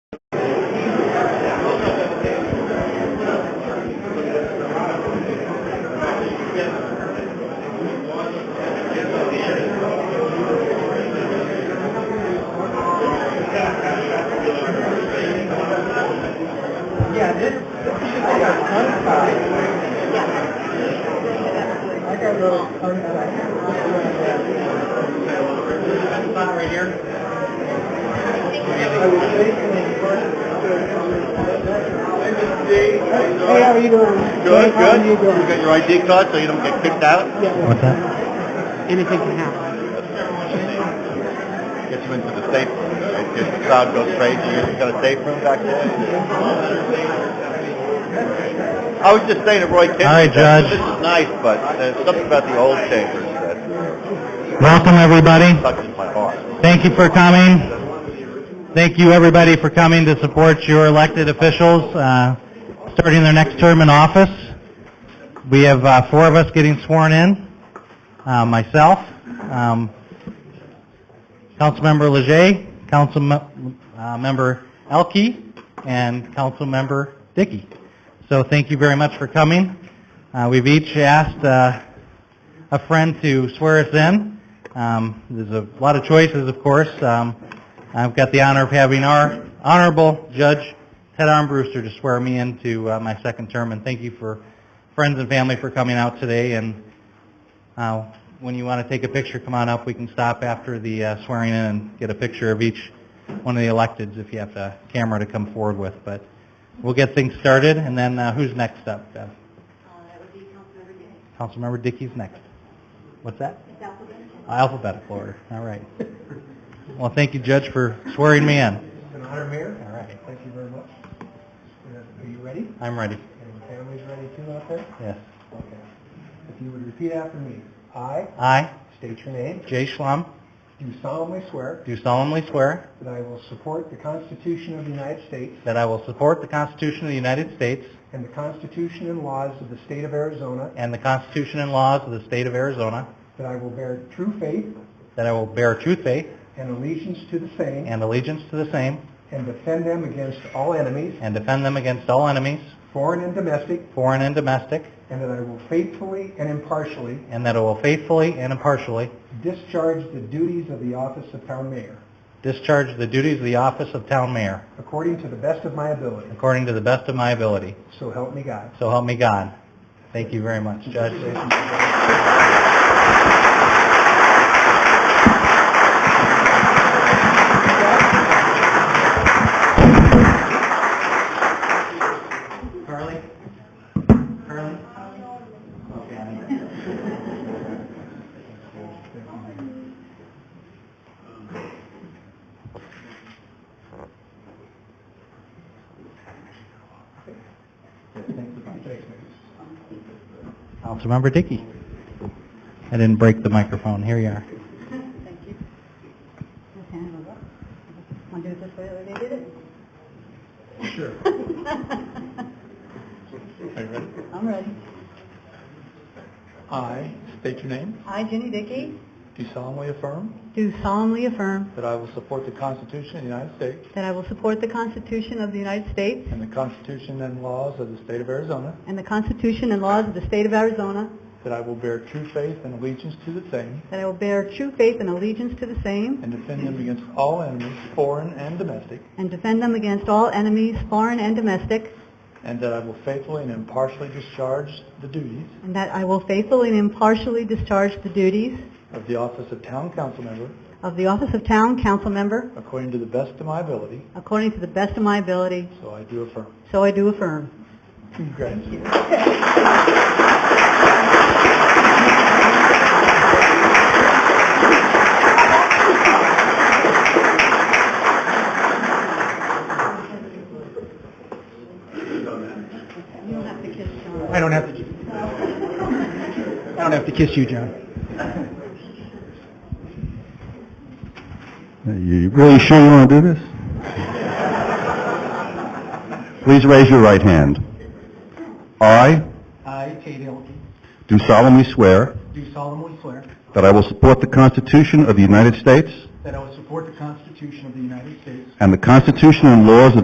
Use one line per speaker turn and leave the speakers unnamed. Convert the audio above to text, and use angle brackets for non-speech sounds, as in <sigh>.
Hey, how are you doing?
Good,
How
good.
are you
You
doing?
got your ID card so you don't get kicked out?
Yeah,
What's that?
anything can happen.
Get you into the safe room. If if the crowd goes crazy, you got a safe room back there? I was just saying to Roy Kinnear.
Hi,
that
Judge.
This is nice, but there's something about the old chambers that
Welcome, everybody.
touches my heart.
Thank you for coming. Thank you, everybody, for coming to support your elected officials uh, starting their next term in office. We have uh, four of us getting sworn in, Uh, myself, um, Councilmember Leger, Councilmember Elke, and Councilmember Dickey. So thank you very much for coming. Uh, We've each asked uh, a friend to swear us in. Um, there's a lot of choices, of course. Um, I've got the honor of having our Honorable Judge Ted Armbruster to swear me into uh, my second term, and thank you for friends and family for coming out today. And uh, when you want to take a picture, come on up. We can stop after the uh, swearing in and get a picture of each one of the electeds if you have a camera to come forward with. But we'll get things started, and then uh, who's next up? Bev? Councilmember Dickey's next. What's that? Alphabetical order, all right. Well, thank you, Judge, for swearing me in.
An honor, Mayor.
All right,
Thank you very much. Uh, Are you ready?
I'm ready.
And your family's ready too out there?
Yes.
Okay. If you would repeat after me. I,
I,
state your name,
Jay Schlum,
do solemnly swear
do solemnly swear
that I will support the Constitution of the United States
that I will support the Constitution of the United States
and the Constitution and laws of the state of Arizona,
and the Constitution and laws of the state of Arizona,
that I will bear true faith
that I will bear true faith
and allegiance to the same
and allegiance to the same,
and defend them against all enemies,
and defend them against all enemies,
foreign and domestic,
foreign and domestic,
and that I will faithfully and impartially
and that I will faithfully and impartially
discharge the duties of the office of town mayor
discharge the duties of the office of town mayor
according to the best of my ability.
according to the best of my ability.
So help me God.
So help me God. Thank you very much, Judge. Carly? Carly? Okay. I need that. Councilmember Dickey. I didn't break the microphone. Here you are.
<laughs> Thank you. Just hand it over. Want to do it this way the way they did it? <laughs>
Sure.
I'm ready.
I state your name.
I, Jenny Dickey,
Do solemnly affirm
do solemnly affirm
that I will support the Constitution of the United States
that I will support the Constitution of the United States
and the Constitution and laws of the state of Arizona,
and the Constitution and laws of the state of Arizona,
that I will bear true faith and allegiance to the same
that I will bear true faith and allegiance to the same,
and defend them against all enemies, foreign and domestic,
and defend them against all enemies, foreign and domestic,
and that I will faithfully and impartially discharge the duties
and that I will faithfully and impartially discharge the duties
of the office of town council member
of the office of town council member
according to the best of my ability,
according to the best of my ability,
so I do affirm.
so I do affirm.
Congratulations.
You don't have to kiss John.
I don't have to, I don't have to kiss you, John.
You really sure you want to do this? Please raise your right hand. I
I, Tate Hilton,
do solemnly swear
do solemnly swear
that I will support the Constitution of the United States
that I will support the Constitution of the United States
and the Constitution and laws of